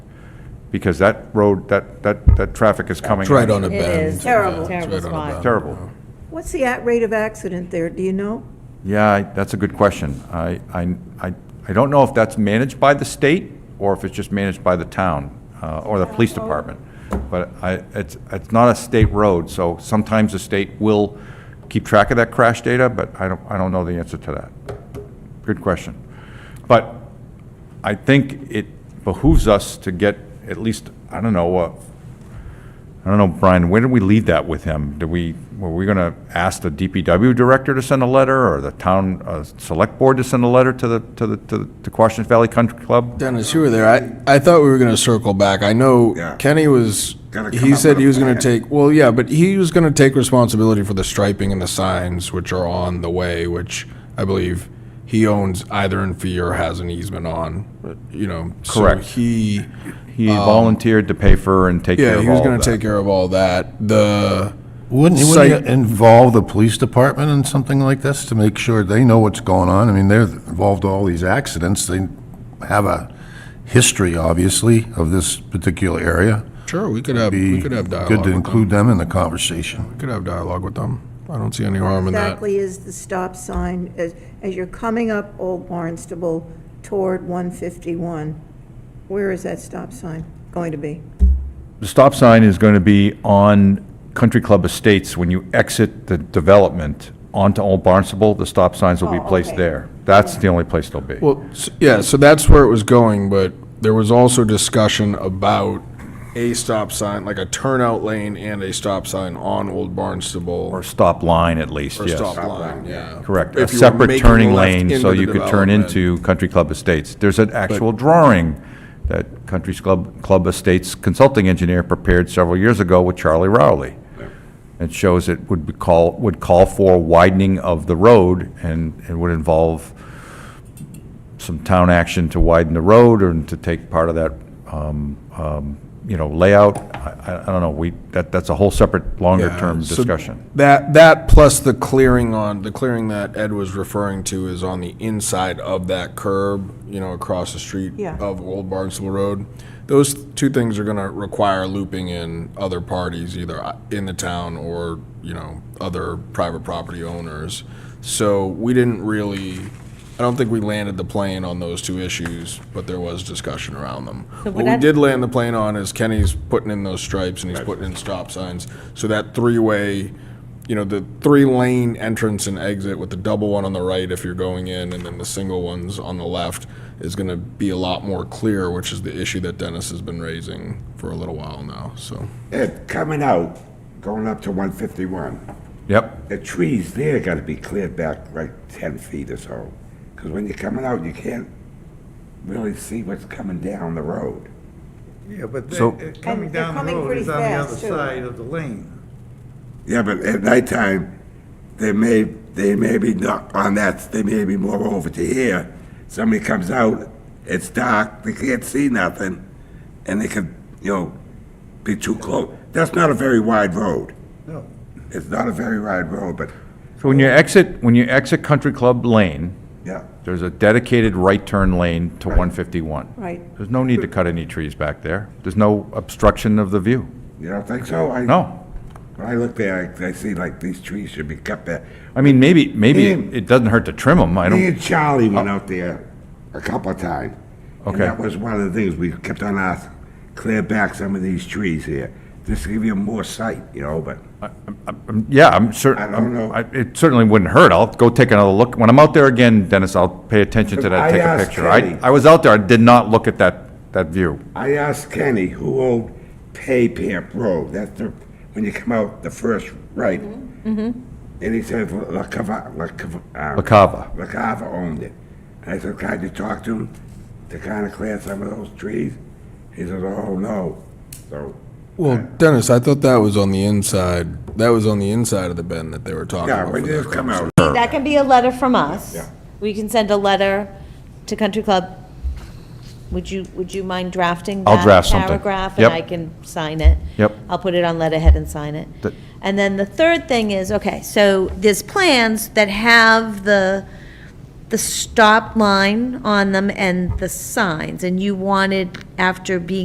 because that road, that, that, that traffic is coming. It's right on a It bend. is. Yeah, Terrible. it's Terrible right on a spot. bend. Terrible. What's the at rate of accident there, do you know? Yeah, I- that's a good question. I, I, I I don't know if that's managed by the state or if it's just managed by the town uh, or the police department. But I, it's, it's not a state road, so sometimes the state will keep track of that crash data, but I don't, I don't know the answer to that. Good question. But I think it behooves us to get at least, I don't know, uh, I don't know, Brian, where did we leave that with him? Did we, were we going to ask the DPW director to send a letter, or the town uh, select board to send a letter to the, to the, to the Quashnet Valley Country Club? Dennis, you were there. I, I thought we were going to circle back. I know Yeah. Kenny was, Gotta come he up said with he a was going to plan. take, well, yeah, but he was going to take responsibility for the striping and the signs which are on the way, which I believe he owns either in fee or has an easement on, you know. so Correct. He, He volunteered to pay for and take care Uh, yeah, of he was all going of to take that. care of all that. The, Wouldn't, Site- wouldn't you involve the police department in something like this to make sure they know what's going on? I mean, they're involved in all these accidents. They have a history, obviously, of this particular area. sure, we could have, Be we could have dialogue good with to them. include them in the conversation. We could have dialogue with them. I don't see any harm in that. Exactly is the stop sign as, as you're coming up Old Barnstable toward 151? Where is that stop sign going to be? The stop sign is going to be on Country Club Estates. When you exit the development onto Old Barnstable, the stop signs will be Oh, placed okay. there. That's the only place they'll be. Well, s- yeah, so that's where it was going, but there was also discussion about a stop sign, like a turnout lane and a stop sign on Old Barnstable. Or stop line at least, or yes. stop line, yeah. Correct, a If you were separate making a turning left lane, into so the you could turn development. into Country Club Estates. There's an actual drawing that Country Club, Club Estates consulting engineer prepared several years ago with Charlie Rowley. It shows it would be call, would call for widening of the road, and it would involve some town action to widen the road and to take part of that, um, um, you know, layout. I, I- I don't know, we, that, that's a whole separate, longer-term Yeah, so discussion. That, that plus the clearing on, the clearing that Ed was referring to is on the inside of that curb, you know, across the street Yeah. of Old Barnstable Road. Those two things are gonna require looping in other parties, either i- in the town or, you know, other private property owners. So we didn't really, I don't think we landed the plane on those two issues, but there was discussion around them. So What what we I- did land the plane on is Kenny's putting in those stripes and he's putting in stop signs. So that three-way, you know, the three-lane entrance and exit with the double one on the right if you're going in and then the single ones on the left is going to be a lot more clear, which is the issue that Dennis has been raising for a little while now, so. Ed, coming out, going up to 151, Yep. the trees there got to be cleared back like 10 feet or so. Because when you're coming out, you can't really see what's coming down the road. Yeah, but they- So- it- coming And they're down the coming road pretty is on the other fast, too. side of the lane. Yeah, but at nighttime, they may, they may be not on that, they may be more over to here. Somebody comes out, it's dark, they can't see nothing, and they could, you know, be too close. That's not a very wide road. No. It's not a very wide road, but, So when you exit, when you exit Country Club Lane, yeah. there's a dedicated right turn lane to 151. Right. There's no need to cut any trees back there. There's no obstruction of the view. You don't think so? I- No. When I look there, I, I see like these trees should be cut back. I mean, maybe, maybe it doesn't hurt to trim them. I Me don't, Oh. and Charlie went out there a couple of times. Okay. And that was one of the things we kept on asking, clear back some of these trees here, just to give you more sight, you know, but I'm- yeah, I'm certain. I don't know. It certainly wouldn't hurt. I'll go take another look. When I'm out there again, Dennis, I'll pay attention to that, I take a asked picture. I, Kelly. I was out there, I did not look at that, that view. I asked Kenny, who owned Pay Pamp Road? That's the, when you come out the first right. Mm-hmm. And he said, La Cava, La Cava. La Cava. La Cava owned it. And I said, can I just talk to him to kind of clear some of those trees? He says, oh, no. So, Well, Dennis, I thought that was on the inside, that was on the inside of the bend that they were talking yeah, about. when for they that come out, That can be a letter from us. Yeah. We can send a letter to Country Club. Would you, would you mind drafting I'll that draft something. paragraph? Yep. And I can sign it. Yep. I'll put it on letterhead and sign it. That- And then the third thing is, okay, so there's plans that have the, the stop line on them and the signs, and you wanted, after being